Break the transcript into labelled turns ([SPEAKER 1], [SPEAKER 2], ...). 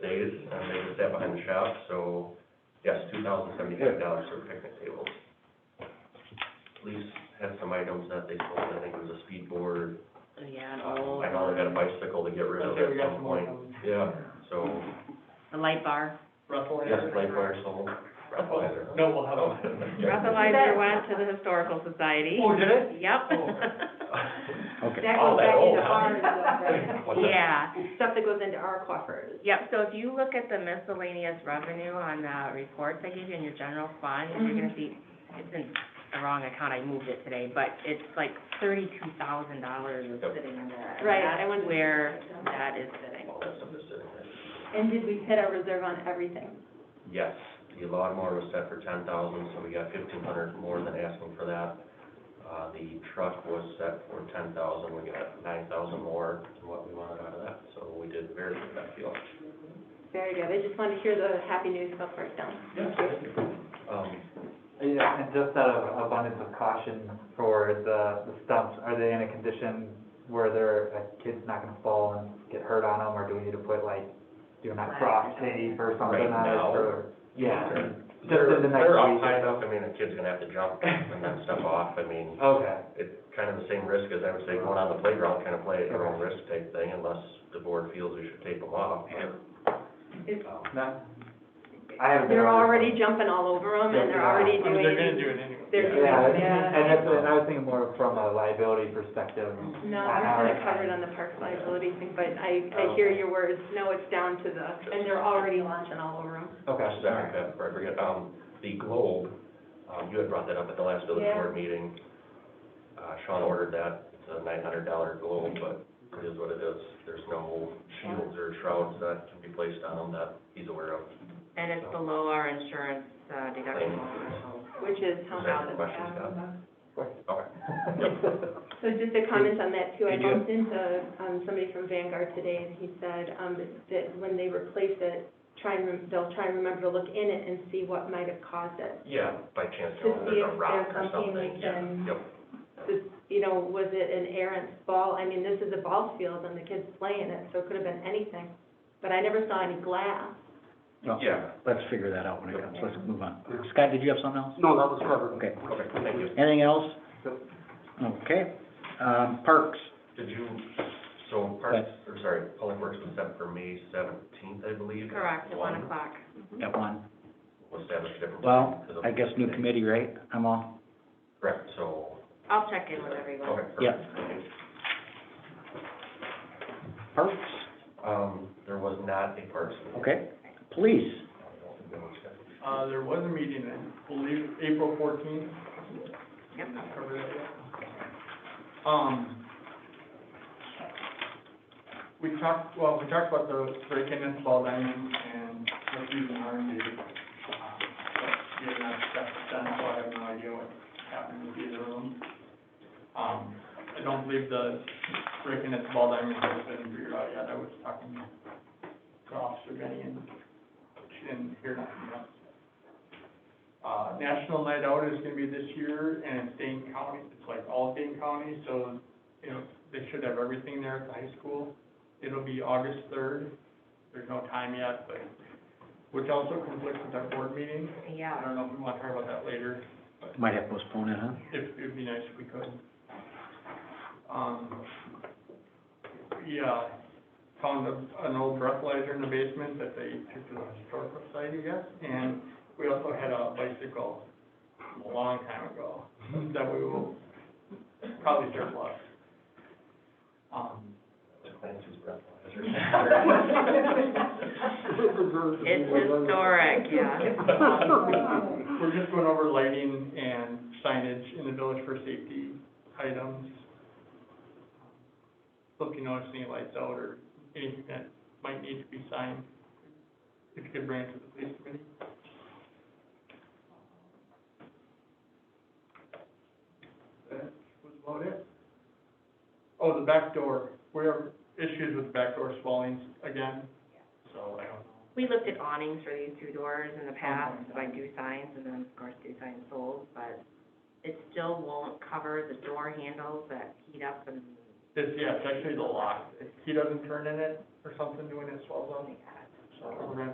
[SPEAKER 1] that behind the shop, so, yes, two thousand seventy-five dollars for picnic tables. Police had some items that they sold, I think it was a speed board,
[SPEAKER 2] Yeah, and
[SPEAKER 1] um,
[SPEAKER 2] all
[SPEAKER 1] I know they got a
[SPEAKER 2] the,
[SPEAKER 1] bicycle to get rid of
[SPEAKER 3] Okay, we
[SPEAKER 1] at
[SPEAKER 3] got
[SPEAKER 1] some
[SPEAKER 3] some more
[SPEAKER 1] point.
[SPEAKER 3] coming.
[SPEAKER 1] Yeah, so,
[SPEAKER 2] the light bar.
[SPEAKER 3] Ruffle.
[SPEAKER 1] yes, light bar sold, breathalyzer.
[SPEAKER 3] No, we'll have
[SPEAKER 1] Oh.
[SPEAKER 3] a.
[SPEAKER 2] Breathalyzer went to the historical society.
[SPEAKER 3] Oh, did it?
[SPEAKER 2] Yep.
[SPEAKER 1] Okay.
[SPEAKER 4] That
[SPEAKER 1] All
[SPEAKER 4] goes
[SPEAKER 1] that
[SPEAKER 4] back
[SPEAKER 1] old.
[SPEAKER 4] into our, right?
[SPEAKER 1] What's that?
[SPEAKER 2] Yeah,
[SPEAKER 4] Stuff that goes into our coffers.
[SPEAKER 2] yep, so if you look at the miscellaneous revenue on the reports I gave you in your general fund, you're gonna see, it's in the wrong account, I moved it today, but it's like thirty-two thousand dollars is
[SPEAKER 1] Yep.
[SPEAKER 2] sitting in there. and
[SPEAKER 4] Right, I
[SPEAKER 2] that's
[SPEAKER 4] wondered-
[SPEAKER 2] Where that is sitting.
[SPEAKER 1] All that stuff is sitting there.
[SPEAKER 4] And did we hit our reserve on everything?
[SPEAKER 1] Yes, the lawnmower was set for ten thousand, so we got fifteen hundred more than asking for that. Uh, the truck was set for ten thousand, we got nine thousand more than what we wanted out of that, so we did very good that deal.
[SPEAKER 4] Very good, I just wanted to hear the happy news about first down.
[SPEAKER 1] Um,
[SPEAKER 5] Yeah, and just out of abundance of caution for the, the stumps, are they in a condition where they're, a kid's not gonna fall and get hurt on them, or do we need to put like, do not cross tape or something
[SPEAKER 1] Right
[SPEAKER 5] on it,
[SPEAKER 1] now?
[SPEAKER 5] or? Yeah, in the
[SPEAKER 1] they're,
[SPEAKER 5] next
[SPEAKER 1] they're up
[SPEAKER 5] week.
[SPEAKER 1] high enough, I mean, a kid's gonna have to jump and then step off, I mean,
[SPEAKER 5] okay,
[SPEAKER 1] it's kind of the same risk as I would say going on the playground, kind of play at your own risk type thing, unless the board feels we should tape them off. but, um,
[SPEAKER 5] no, I haven't. been
[SPEAKER 4] They're
[SPEAKER 5] around this
[SPEAKER 4] already
[SPEAKER 5] one.
[SPEAKER 4] jumping all over them and they're
[SPEAKER 5] Yeah.
[SPEAKER 4] already
[SPEAKER 3] I mean, they're gonna
[SPEAKER 4] doing,
[SPEAKER 3] do it anyway.
[SPEAKER 4] they're
[SPEAKER 1] Yeah.
[SPEAKER 4] doing,
[SPEAKER 5] Yeah, I think- and
[SPEAKER 4] yeah.
[SPEAKER 5] that's, and I was thinking more from a liability perspective.
[SPEAKER 4] No,
[SPEAKER 5] on
[SPEAKER 4] we're
[SPEAKER 5] our
[SPEAKER 4] kind of
[SPEAKER 5] side.
[SPEAKER 4] covered on the park liability thing, but I, I hear your words, no, it's down to the, and they're already launching all over them.
[SPEAKER 5] Okay,
[SPEAKER 1] Gosh, sorry, Pat, before I forget, um, the Globe, um, you had brought that up at the last village
[SPEAKER 4] Yeah.
[SPEAKER 1] board meeting. Uh, Sean ordered that, it's a nine hundred dollar Globe, but it is what it is. There's no shields or shrouds that can be placed on them that he's aware of.
[SPEAKER 2] And it's below our insurance uh, deductible.
[SPEAKER 4] Which is how
[SPEAKER 1] Does that
[SPEAKER 4] now
[SPEAKER 1] answer
[SPEAKER 4] that.
[SPEAKER 1] your question, Scott? Okay.
[SPEAKER 4] So just a comment on that too, I bumped into, um, somebody from Vanguard today and he said, um, that when they replace it, try and, rem- they'll try and remember to look in it and see what might have caused it.
[SPEAKER 1] Yeah, by chance,
[SPEAKER 4] To
[SPEAKER 1] you know,
[SPEAKER 4] see
[SPEAKER 1] there's a
[SPEAKER 4] if
[SPEAKER 1] rock
[SPEAKER 4] there's
[SPEAKER 1] or something,
[SPEAKER 4] something we
[SPEAKER 1] yeah,
[SPEAKER 4] can-
[SPEAKER 1] yep,
[SPEAKER 4] This, you know, was it an errant ball, I mean, this is a ball field and the kids playing it, so it could have been anything. But I never saw any glass.
[SPEAKER 1] yeah,
[SPEAKER 6] Let's figure that out when it comes, let's move on. Scott, did you have something else?
[SPEAKER 7] No, that was covered.
[SPEAKER 6] Okay,
[SPEAKER 1] okay, thank you.
[SPEAKER 6] anything else? Okay, um, parks,
[SPEAKER 1] Did you, so parks, or sorry, public works was set for May seventeenth, I believe?
[SPEAKER 2] Correct, at one
[SPEAKER 1] One.
[SPEAKER 2] o'clock.
[SPEAKER 6] got one.
[SPEAKER 1] Was established different.
[SPEAKER 6] Well,
[SPEAKER 1] because of-
[SPEAKER 6] I guess new committee, right? I'm all,
[SPEAKER 1] Correct, so.
[SPEAKER 2] I'll check in with everyone.
[SPEAKER 1] Okay,
[SPEAKER 6] Yeah.
[SPEAKER 1] perfect, thank you.
[SPEAKER 6] parks,
[SPEAKER 1] Um, there was not a parks meeting.
[SPEAKER 6] okay. Police,
[SPEAKER 3] Uh, there was a meeting, I believe, April fourteenth,
[SPEAKER 2] Yep.
[SPEAKER 3] cover that yet? Um, we talked, well, we talked about the break-in and fall diamond and refuse and harm duty. Um, but We have not got that done, so I have no idea what happened with either of them. Um, I don't believe the break-in and fall diamond has been figured out yet. I was talking to Officer Benny and she didn't hear nothing yet. Uh, National Night Out is gonna be this year, and it's Dane County, it's like all Dane County, so, you know, they should have everything there at the high school. It'll be August third, there's no time yet, but, which also conflicts with our board meeting. I
[SPEAKER 2] Yeah.
[SPEAKER 3] don't know if we want to talk about that later,
[SPEAKER 6] might have postponed it, huh?
[SPEAKER 3] if, it'd be nice if we could. Um, yeah, found a, an old breathalyzer in the basement that they took to the historical society, I guess, and we also had a bicycle a long time ago that we will probably surplus. Um,
[SPEAKER 1] Nancy's
[SPEAKER 2] It's historic, yeah.
[SPEAKER 3] We're just going over lighting and signage in the village for safety items. So If you notice any lights out or anything that might need to be signed, if you could bring it to the police committee. That was about it. Oh, the back door, we have issues with back door swallings again, so I don't know.
[SPEAKER 2] We looked at awnings for these two doors in the past, like do signs, and then of course do signs sold, but it still won't cover the door handles that heat up and,
[SPEAKER 3] It's, yeah, it's actually the lock. If he doesn't turn in it or something doing his swells
[SPEAKER 2] oh
[SPEAKER 3] on,
[SPEAKER 2] my god,